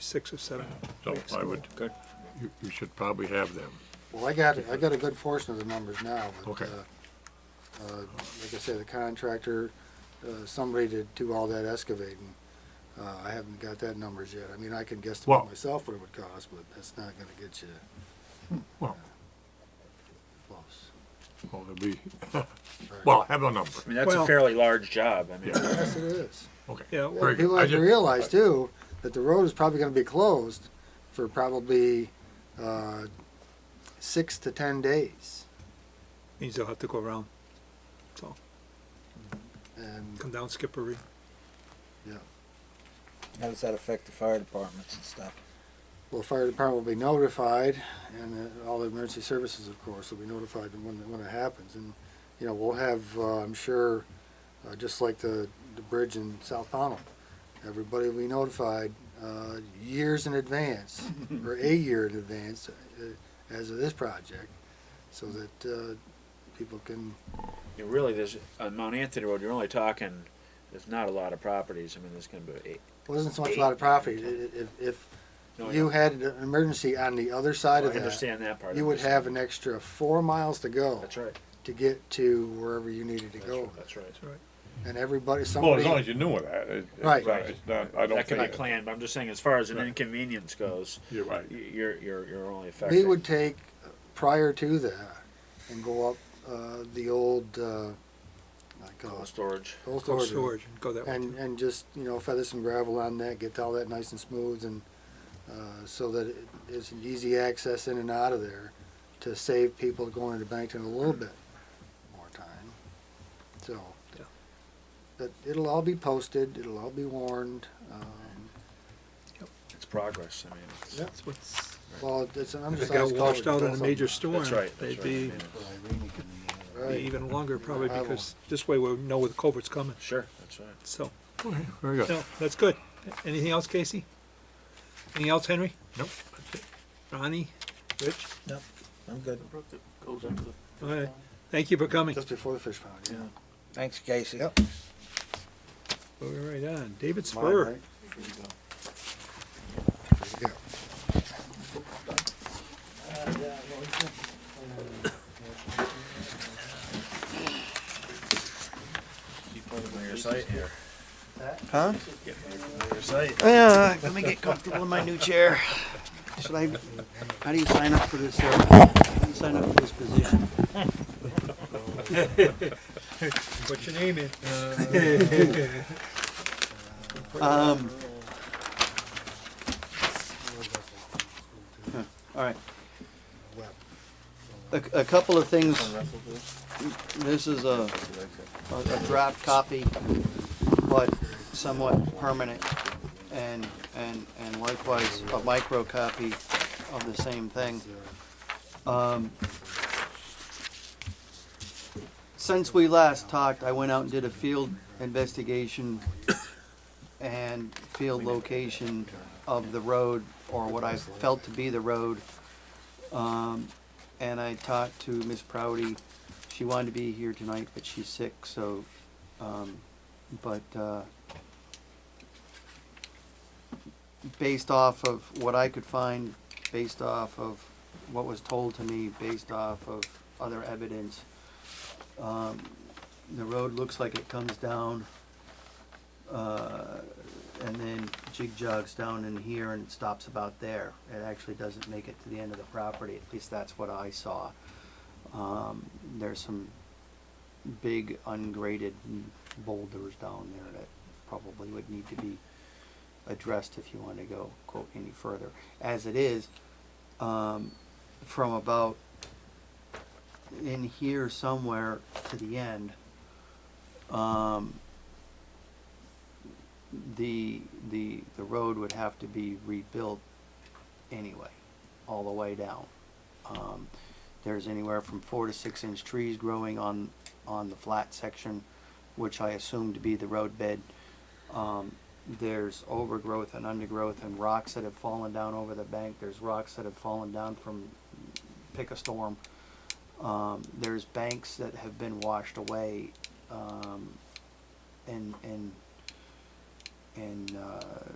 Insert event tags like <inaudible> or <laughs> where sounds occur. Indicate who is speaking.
Speaker 1: six or seven.
Speaker 2: So
Speaker 1: weeks
Speaker 2: I
Speaker 1: ago.
Speaker 2: would, you, you should probably have them.
Speaker 3: Well, I got, I got a good portion of the numbers now. but,
Speaker 2: Okay.
Speaker 3: uh, uh, Like I said, the contractor, uh, somebody to do all that excavating. Uh, I haven't got that numbers yet. I mean, I can
Speaker 2: Well-
Speaker 3: guesstimate myself what it would cost, but that's not gonna get you
Speaker 2: Well,
Speaker 3: close.
Speaker 2: well, there'll be,
Speaker 3: Right.
Speaker 2: well, have a number.
Speaker 4: I mean, that's
Speaker 1: Well-
Speaker 4: a fairly large job. I mean,
Speaker 3: Yes, it is.
Speaker 2: Okay.
Speaker 1: Yeah, well,
Speaker 2: Very good.
Speaker 3: People
Speaker 2: I
Speaker 3: have to
Speaker 2: just-
Speaker 3: realize too, that the road is probably gonna be closed for probably, uh, six to ten days.
Speaker 1: Means they'll have to go around,
Speaker 3: And
Speaker 1: come down Skippery.
Speaker 5: How does that affect the fire departments and stuff?
Speaker 3: Well, fire department will be notified, and uh, all the emergency services, of course, will be notified when, when it happens. And, you know, we'll have, uh, I'm sure, uh, just like the, the bridge in South Pownell, everybody will be notified, uh, years
Speaker 4: <laughs>
Speaker 3: in advance, or a year in advance, uh, as of this project, so that, uh, people can,
Speaker 4: you really, there's on Mount Anthony Road. You're only talking. There's not a lot of properties. I mean, there's going to be eight.
Speaker 3: well, it isn't so much a lot of property, I- i- if,
Speaker 4: No,
Speaker 3: if you had an emergency on the other side
Speaker 4: I
Speaker 3: of that,
Speaker 4: understand that part.
Speaker 3: you
Speaker 4: I'm
Speaker 3: would
Speaker 4: just-
Speaker 3: have an extra four miles to go.
Speaker 4: That's right.
Speaker 3: to get to wherever you needed to
Speaker 4: That's
Speaker 3: go.
Speaker 4: right. Oh, That's right.
Speaker 3: And everybody,
Speaker 6: Well, as long
Speaker 3: somebody,
Speaker 6: as you knew of that, it,
Speaker 3: Right.
Speaker 6: it's not- it's not, I don't
Speaker 4: That can be
Speaker 6: think, it-
Speaker 4: planned, but I'm just saying, as far as an inconvenience goes,
Speaker 6: you're right.
Speaker 4: y- you're you're you're only affecting.
Speaker 3: we would take uh, prior to that and go up, uh, the old, uh, like,
Speaker 4: Cold
Speaker 3: uh,
Speaker 4: storage.
Speaker 3: old
Speaker 1: Cold
Speaker 3: storage.
Speaker 1: storage, go that way.
Speaker 3: And, and just, you know, feather some gravel on that, get all that nice and smooth and, uh, so that it- it's an easy access in and out of there to save people going to Bankton a little bit more time. So,
Speaker 1: Yeah.
Speaker 3: but it'll all be posted, it'll all be warned, um,
Speaker 4: It's progress. I mean, it's,
Speaker 3: Yeah.
Speaker 1: That's what's-
Speaker 3: well, it's an
Speaker 1: If it
Speaker 3: undersized.
Speaker 1: got washed out
Speaker 3: culvert,
Speaker 1: in a
Speaker 3: that's
Speaker 1: major
Speaker 3: all.
Speaker 1: storm,
Speaker 4: that's right. That's
Speaker 1: they'd
Speaker 4: right.
Speaker 1: be
Speaker 4: I mean,
Speaker 5: Well,
Speaker 1: be
Speaker 3: Right.
Speaker 1: even longer probably
Speaker 3: I will.
Speaker 1: because this way we'll know where the culvert's coming,
Speaker 4: sure. That's right.
Speaker 1: so.
Speaker 2: Okay, Very good.
Speaker 1: No, that's good. Anything else, Casey? Anything else, Henry?
Speaker 2: Nope.
Speaker 1: Ronnie? Rich?
Speaker 5: I'm good.
Speaker 1: All right. Thank you for coming.
Speaker 3: Just before the fish pond, yeah.
Speaker 5: Thanks, Casey.
Speaker 3: Yep.
Speaker 1: Moving right on. David
Speaker 3: Mine,
Speaker 1: Spur.
Speaker 3: right? There you go.
Speaker 4: Keep putting on your site here.
Speaker 5: Huh?
Speaker 4: Get me from your site.
Speaker 5: Yeah, Uh, let me get comfortable in my new chair. Should I, how do you sign up for this, uh, how do you sign up for this position?
Speaker 1: Put your name in.
Speaker 5: Um. huh, All right. A, a couple of things. This is a, a a draft copy, but somewhat permanent. And, and, and likewise, a micro copy of the same thing. Um, Since we last talked, I went out and did a field investigation and field location of the road, or what I felt to be the road. Um, and I talked to Miss Proudy. She wanted to be here tonight, but she's sick, so, um, but, uh, based off of what I could find, based off of what was told to me, based off of other evidence, um, the road looks like it comes down, uh, and then jig jogs down in here and it stops about there. It actually doesn't make it to the end of the property, at least that's what I saw. Um, there's some big ungraded boulders down there that probably would need to be addressed if you want to go, go any further. As it is, um, from about in here somewhere to the end, um, the, the, the road would have to be rebuilt anyway, all the way down. Um, there's anywhere from four to six inch trees growing on, on the flat section, which I assume to be the roadbed. Um, there's overgrowth and undergrowth and rocks that have fallen down over the bank. There's rocks that have fallen down from, pick a storm. Um, there's banks that have been washed away, um, and, and, and, uh,